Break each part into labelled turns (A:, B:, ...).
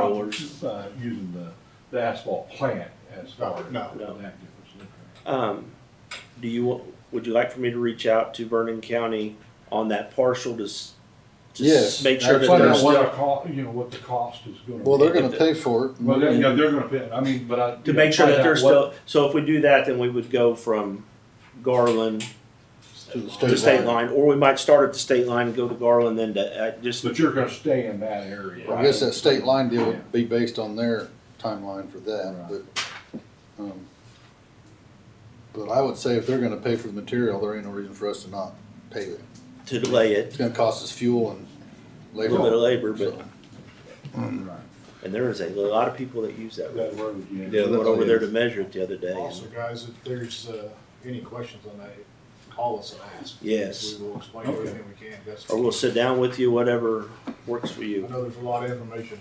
A: uh, the asphalt plant as far as.
B: No,
A: that
C: no.
A: difference.
C: Um, do you, wa- would you like for me to reach out to Vernon County on that partial to, s- to s-
D: Yes,
C: make sure that
A: And Find out
C: there's
A: what
C: still,
A: the co, you know, what the cost is gonna be.
D: Well, they're
C: If
D: gonna
C: the-
D: pay for it.
A: Well, they're, yeah, they're gonna pay, I mean, but I.
C: to make sure
A: find
C: that
A: out
C: there's
A: what-
C: still, so if we do that, then we would go from Garland
D: To the
C: to
D: state
C: state
D: line.
C: line, or we might start at the state line and go to Garland, then to, uh, just,
A: But you're gonna stay in that area.
D: I guess that state line deal would be based on their timeline for that, but, um, but I would say if they're gonna pay for the material, there ain't no reason for us to not pay it.
C: to delay it,
D: It's gonna cost us fuel and
C: a little bit of
D: labor.
C: labor, but,
D: So,
A: Right.
C: and there is a lot of people that use that. road.
A: That road, yeah.
C: We Went over there to measure it the other day.
B: also, guys, if there's, uh, any questions on that, call us and ask.
C: Yes.
B: We will explain
A: Okay.
B: everything we can, that's, I
C: Or we'll sit down with you, whatever works for you.
B: know there's a lot of information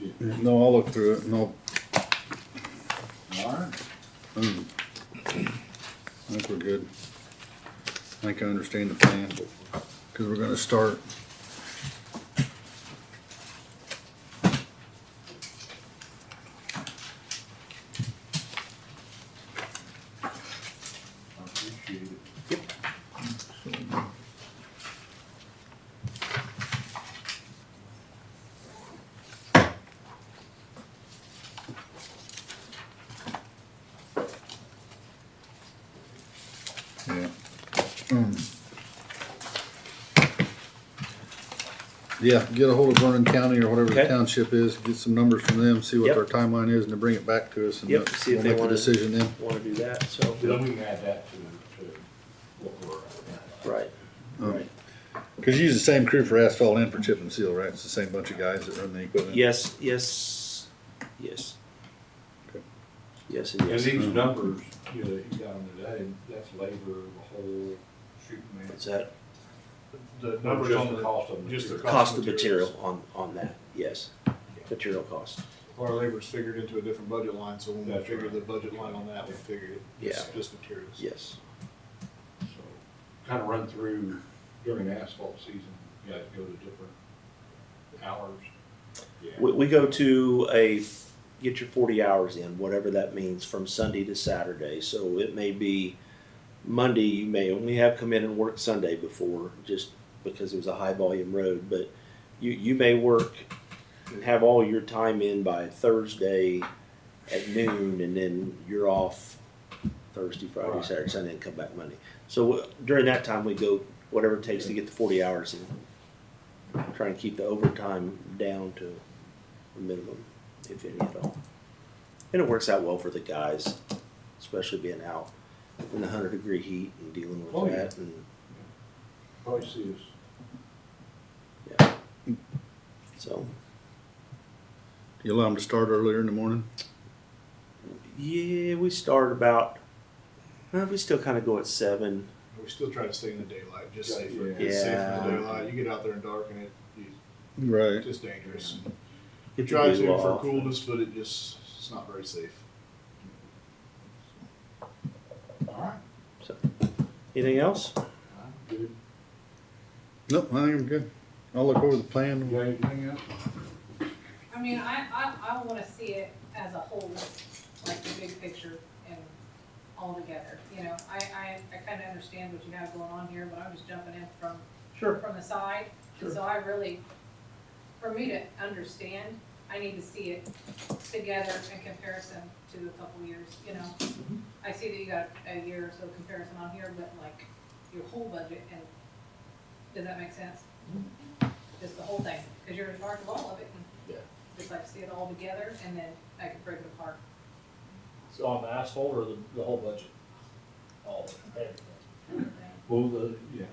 B: there.
D: No, I'll look through it and I'll,
A: All right.
D: mm. I think we're good. I think I understand the plan, cause we're gonna start.
A: I appreciate it.
D: Yeah. Mm. Yeah, get a hold of Vernon County or whatever the
C: Okay.
D: township is, get some numbers from them, see what
C: Yep.
D: their timeline is, and then bring it back to us, and we'll
C: Yep, see if they
D: make the
C: wanna-
D: decision then.
C: Want to do that, so.
A: Then we can add that to, to what we're. at.
C: Right,
D: Um,
C: right.
D: Cause you use the same crew for asphalt and for chip and seal, right? It's the same bunch of guys that run the equipment?
C: Yes, yes, yes.
D: Okay.
C: Yes, and
A: And
C: yes.
D: Mm-hmm.
A: these numbers, you know, that you got on today, that's labor, the whole shooting match.
C: Is that
B: The numbers
A: just
B: on
A: the
B: the,
A: cost of
B: just the
A: material.
C: cost of
B: materials.
C: material on, on that, yes. Material cost,
B: Our labor's figured into a different budget line, so when we
A: That's
B: figure
A: right.
B: the budget line on that, we figure it, it's
C: Yeah.
B: just materials.
C: yes.
A: Kind of run through during asphalt season, you guys go to different hours.
C: We, we go to a, get your forty hours in, whatever that means, from Sunday to Saturday. So it may be Monday, you may only have come in and work Sunday before, just because it was a high volume road, but you, you may work and have all your time in by Thursday at noon, and then you're off Thursday, Friday,
A: Right.
C: Saturday, Sunday, and come back Monday. So during that time, we go whatever it takes to get the forty hours in. Try and keep the overtime down to a minimum, if any at all. And it works out well for the guys, especially being out in the hundred degree heat and dealing with
A: Oh, yeah.
C: that. And
A: Probably see us
C: so,
D: You allow them to start earlier in the morning?
C: yeah, we start about. uh, we still kind of go at seven.
B: We still try to stay in the daylight, just
A: Yeah.
B: safer,
C: Yeah.
B: it's safer in the daylight, you get out there and darken it, you-
D: Right.
B: it's just dangerous.
C: Get your
B: Try to
C: glue
B: for
C: off.
B: coolness, but it just, it's not very safe.
A: All right,
C: Anything else?
A: good.
D: Nope, I think I'm good. I'll look over the plan.
A: You got anything else?
E: I mean, I, I, I wanna see it as a whole, like the big picture and all together, you know? I, I, I kinda understand what you have going on here, but I'm just jumping in from,
A: Sure.
E: from the side. And so I really, for me to understand, I need to see it together in comparison to a couple years, you know? I see that you got a year or so comparison on here, but like your whole budget and, does that make sense? Just the whole thing, cause you're in charge of all of it. and just like see it all together and then I could break it apart.
F: So on the asphalt or the, the whole budget? All of it, everything.
A: Well, the, yeah,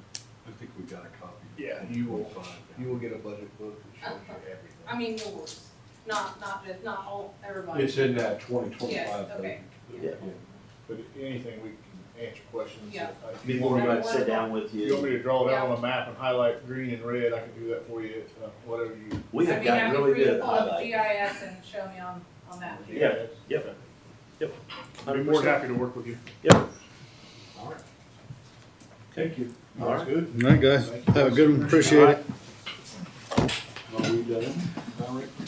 A: I think we got a copy.
B: Yeah, you will,
A: find out.
B: you will get a budget book that shows you everything.
E: I mean yours, not, not just, not all, everybody.
A: It's in that twenty twenty-five.
E: Yes, okay.
C: Yeah.
B: But anything, we can answer questions. uh,
E: Yeah.
B: If you
C: Before we
B: want
C: go
B: me-
C: ahead and sit down with
B: You want me
C: you,
B: to draw it out on a map and highlight green and red, I can do that for you, uh, whatever you.
C: we
E: I
C: have
E: mean,
C: got
E: have you
C: really
E: read
C: good at
E: all of
C: highlight.
E: GIS and show me on, on that.
C: Yeah, yep. Yep.
B: I'd be more than happy to work with you.
A: All right. Thank you.
C: All right.
B: Sounds good.
D: All right, guys. Have a good one. Appreciate it.
A: Are we done? All right.